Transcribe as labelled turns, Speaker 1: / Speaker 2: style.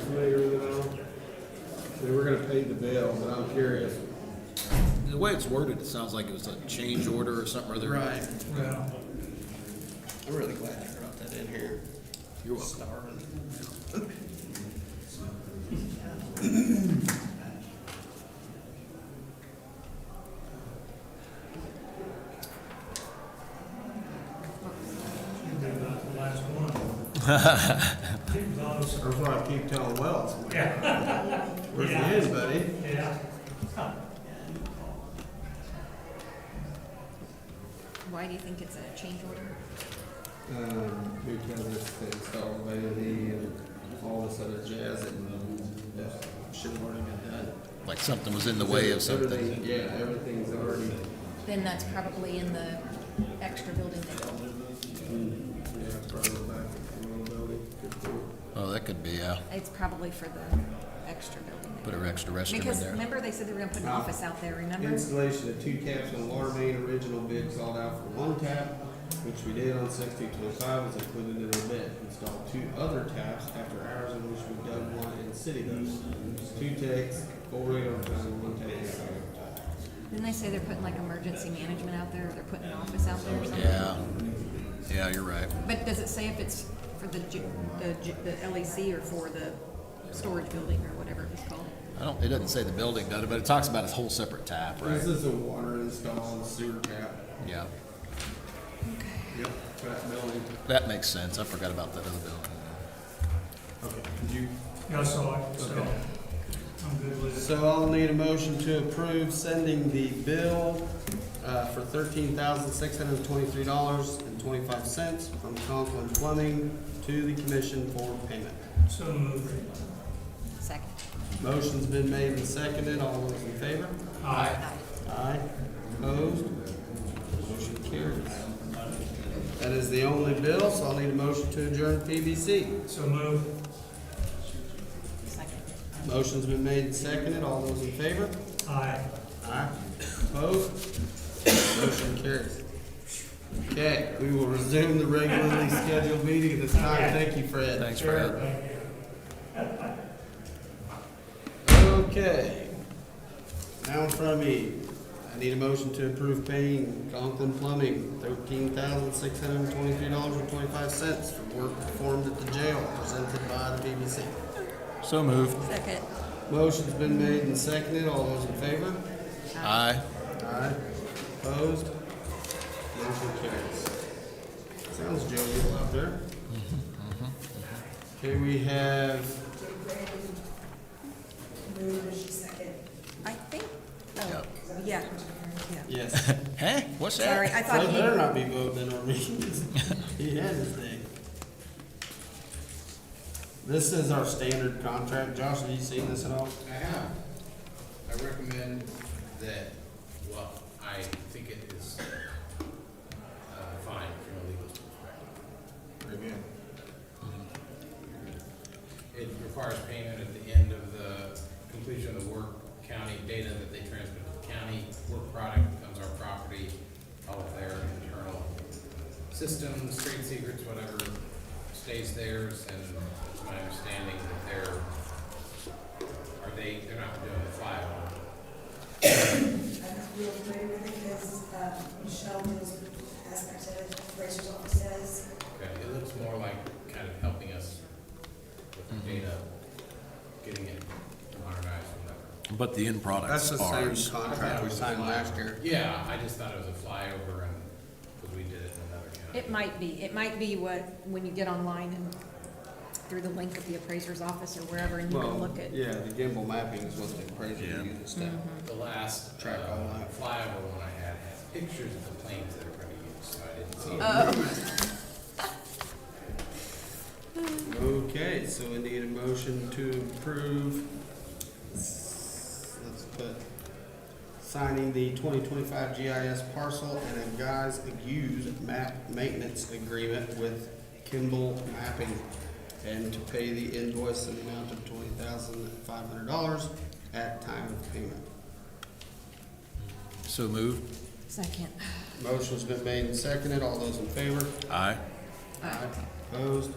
Speaker 1: familiar with it all? They were gonna pay the bill, but I'm curious.
Speaker 2: The way it's worded, it sounds like it was a change order or something or other.
Speaker 3: Right.
Speaker 1: Yeah.
Speaker 3: I'm really glad you brought that in here.
Speaker 2: You're welcome.
Speaker 3: Starving.
Speaker 4: the last one. It was,
Speaker 1: That's why I keep telling Wells.
Speaker 4: Yeah.
Speaker 1: Where's the
Speaker 4: Yeah.
Speaker 1: end, buddy?
Speaker 4: yeah.
Speaker 5: Why do you think it's a change order?
Speaker 1: Um, because it's the install lately and all this other jazz and, uh, shit already been done.
Speaker 2: Like something was in the way of something.
Speaker 1: Everything- Yeah, everything's already,
Speaker 5: Then that's probably in the extra building they built.
Speaker 1: mm, yeah, probably back to the old building. Good point.
Speaker 2: Oh, that could be, uh,
Speaker 5: It's probably for the extra building. they
Speaker 2: put an extra
Speaker 5: built.
Speaker 2: restroom in
Speaker 5: Because
Speaker 2: there.
Speaker 5: remember they said they were gonna put an office out there, remember?
Speaker 1: Installation of two taps on water main, original bid called out for one tap, which we did on sixteen twenty-five, was included in our bid. Installed two other taps after hours in which we dug one and city those. Two takes, four eight overtime, one take eight overtime.
Speaker 5: Didn't they say they're putting like emergency management out there, or they're putting an office out there or something?
Speaker 2: Yeah. Yeah, you're right.
Speaker 5: But does it say if it's for the, ju- the, ju- the LEC or for the storage building or whatever it was called?
Speaker 2: I don't, it doesn't say the building does it, but it talks about a whole separate tap, right?
Speaker 1: This is a water install, sewer tap.
Speaker 2: Yeah.
Speaker 1: Yep. For that building.
Speaker 2: That makes sense. I forgot about that other building.
Speaker 1: Okay. Did you
Speaker 4: Yeah, I saw it, so
Speaker 1: Okay.
Speaker 4: I'm good with it.
Speaker 1: So I'll need a motion to approve sending the bill uh, for thirteen thousand six hundred twenty-three dollars and twenty-five cents from Conklin Plumbing to the commission for payment.
Speaker 4: So moved.
Speaker 5: Second.
Speaker 1: Motion's been made and seconded. All those in favor?
Speaker 4: Aye.
Speaker 1: Aye. Opposed? Motion carries. That is the only bill, so I'll need a motion to adjourn PBC.
Speaker 4: So moved.
Speaker 5: Second.
Speaker 1: Motion's been made and seconded. All those in favor?
Speaker 4: Aye.
Speaker 1: Aye. Opposed? Motion carries. Okay, we will resume the regularly scheduled meeting at this time. Thank you, Fred.
Speaker 2: Thanks, Fred.
Speaker 1: Okay. Now in front of me, I need a motion to approve paying Conklin Plumbing thirteen thousand six hundred and twenty-three dollars and twenty-five cents for work performed at the jail presented by the BBC.
Speaker 2: So moved.
Speaker 5: Second.
Speaker 1: Motion's been made and seconded. All those in favor?
Speaker 2: Aye.
Speaker 1: Aye. Opposed? Motion carries. Sounds jovial out there.
Speaker 5: Mm-hmm.
Speaker 1: Okay, we have,
Speaker 5: I think, oh,
Speaker 2: Yep.
Speaker 5: yeah, yeah.
Speaker 1: yes.
Speaker 2: Hey, what's that?
Speaker 5: Sorry, I
Speaker 1: Fred
Speaker 5: thought he,
Speaker 1: better not be voting on me. He had his thing. This is our standard contract. Josh, have you seen this at all?
Speaker 6: I have. I recommend that, well, I think it is, uh, fine from a legal perspective. It requires payment at the end of the completion of the work, county data that they transmit to the county, work product becomes our property, all of their internal systems, trade secrets, whatever stays theirs, and it's my understanding that they're, are they, they're not doing the file,
Speaker 7: I'm real familiar with it because uh, Michelle knows aspects of it, Rachel's office says.
Speaker 6: Okay, it looks more like kind of helping us with the data, getting it modernized, whatever.
Speaker 2: But the end
Speaker 1: That's
Speaker 2: product's
Speaker 1: the
Speaker 2: ours.
Speaker 1: same contract we signed last year.
Speaker 6: Yeah, I just thought it was a flyover and, because we did it in another county.
Speaker 5: it might be, it might be what, when you get online and through the link of the appraiser's office or wherever, and you can
Speaker 1: Well,
Speaker 5: look at. Mm-hmm.
Speaker 1: yeah, the gimbal mapping is what the appraiser
Speaker 2: Yeah.
Speaker 1: used. That
Speaker 6: The last, uh,
Speaker 1: Track all that.
Speaker 6: flyover one I had had pictures of the planes that are gonna use, so I didn't see. it.
Speaker 1: Okay, so we need a motion to approve, let's put, signing the twenty twenty-five GIS parcel and a guys use map maintenance agreement with Kimball Mapping and to pay the invoice in the amount of twenty thousand five hundred dollars at time of payment.
Speaker 2: So moved.
Speaker 5: Second.
Speaker 1: Motion's been made and seconded. All those in favor?
Speaker 2: Aye.
Speaker 5: Aye.
Speaker 1: Opposed?